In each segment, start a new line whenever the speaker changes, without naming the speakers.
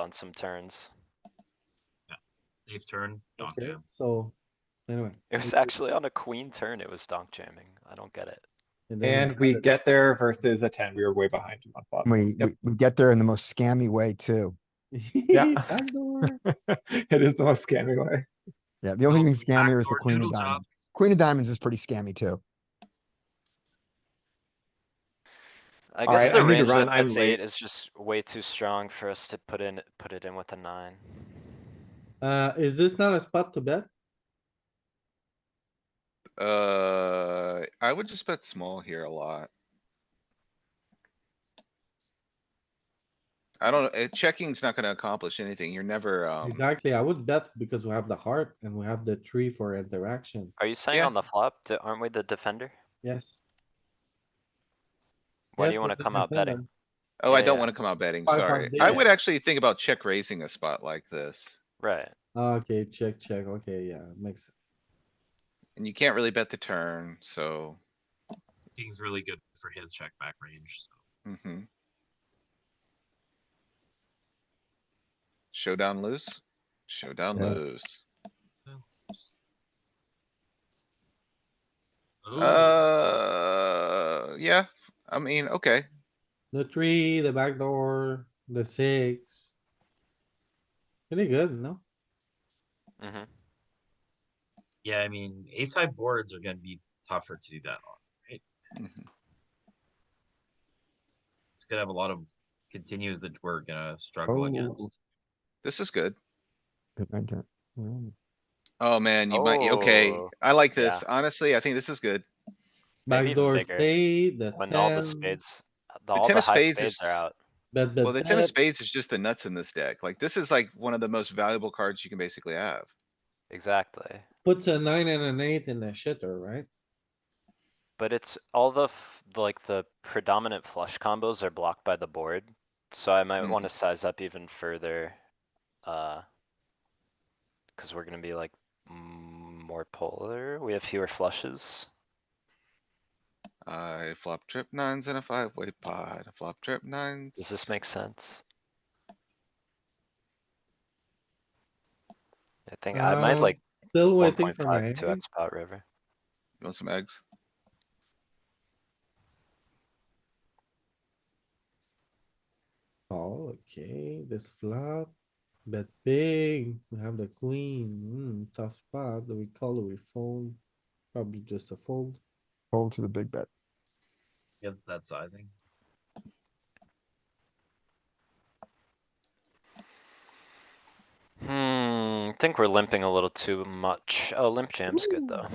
on some turns.
Safe turn, donk
Okay,
jam.
so anyway.
It was actually on a queen turn, it was donk jamming. I don't get it.
and then
And we get there versus a ten, we were way behind him on
Uh,
flop.
We,
Yep.
we, we get there in the most scammy way too.
Yeah.
Backdoor.
It is the most scamming way.
Yeah, the only
Oh,
thing scammier is the
backdoor
queen of
noodle job.
diamonds. Queen of diamonds is pretty scammy too.
I
All
guess
right, I
the
need to
range
run,
that
I'm
that's
late.
eight is just way too strong for us to put in, put it in with a nine.
Uh, is this not a spot to bet?
Uh, I would just bet small here a lot. I don't, uh, checking's not gonna accomplish anything. You're never, um,
Exactly, I would bet because we have the heart and we have the tree for interaction,
Are you saying
Yeah.
on the flop, d- aren't we the defender?
yes.
Why do
Yes,
you wanna
but
come out
defend
betting?
oh, I
Yeah.
don't wanna come out betting,
Five, five
sorry.
big,
I
yeah.
would actually think about check raising a spot like this.
Right,
them. Ah, Okay, check, check, okay, yeah, makes,
And you can't really bet the turn, so,
King's really good for his check back range, so.
mhm. Showdown lose, showdown
Yeah.
lose.
Ooh,
Uh, yeah, I mean, okay,
the tree, the back door, the six. Pretty good, no?
mm-hmm.
Yeah, I mean, ace high boards are gonna be tougher to do that on.
mhm.
It's gonna have a lot of continues that we're gonna struggle
Oh.
against.
this is good.
Good idea. Mm.
Oh, man, you might, okay,
Oh,
I like this. Honestly, I think this is good.
Maybe even
Backdoor
bigger,
spade, the
When all the
ten,
spades, the- all
ten
the
of
high
spades
spades
is-
are out.
bet
Well,
the
the ten of
ten.
spades is just the nuts in this deck. Like, this is like one of the most valuable cards you can basically have.
Exactly.
Puts a nine and an eight in the shitter, right?
But it's all the, f- the, like, the predominant flush combos are blocked by the board, so I might
Mm.
wanna size up even further, uh. Cause we're gonna be like mm, more polar, we have fewer flushes.
I flop trip nines and a five way pot, I flop trip nines.
Does this make sense? I think I might
Um,
like
Still
one
waiting
point
for my.
five, two X pot river.
You want some eggs?
Oh, okay, this flop, bet big, we have the queen, hmm, tough spot, do we call or we fold? Probably just a fold.
Fold to the big bet.
Against that sizing.
Hmm, think we're limping a little too much. Oh, limp jam's good though.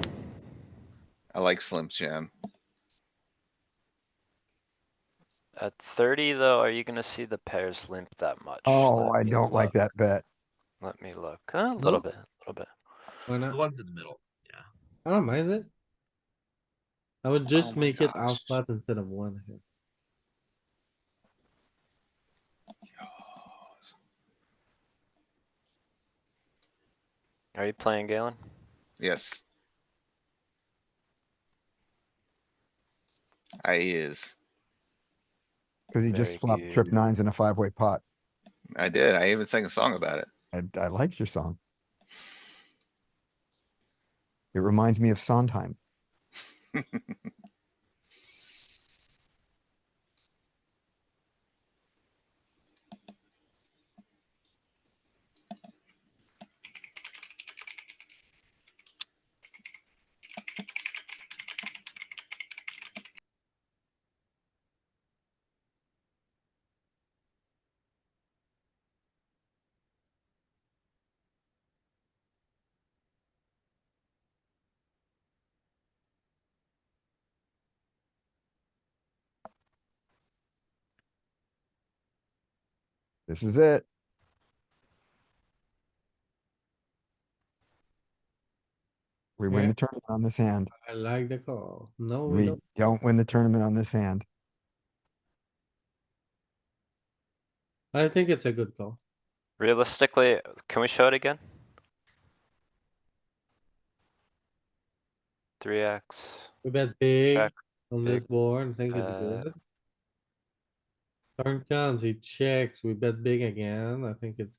I like Slim Jim.
At thirty though, are you gonna see the pairs limp that much?
Oh,
Let
I
me
don't like
look.
that bet.
Let me look, a little
Nope.
bit, a little bit.
Why
The
not?
ones in the middle, yeah.
I don't mind it. I would just
Oh my
make it
gosh.
half pot instead of one here.
Are you playing Galen?
Yes. I is.
Cause he
Very
just flopped trip
good.
nines in a five way pot.
I did. I even sang a song about it.
I, I liked your song. It reminds me of Sondheim. This is it. We win
Yeah.
the tournament on this hand.
I like the call. Oh, No, we
We
don't.
don't win the tournament on this hand.
I think it's a good call.
Realistically, can we show it again? Three X,
We bet big
check,
on this board, I think it's
Uh,
good. Turn comes, he checks, we bet big again, I think it's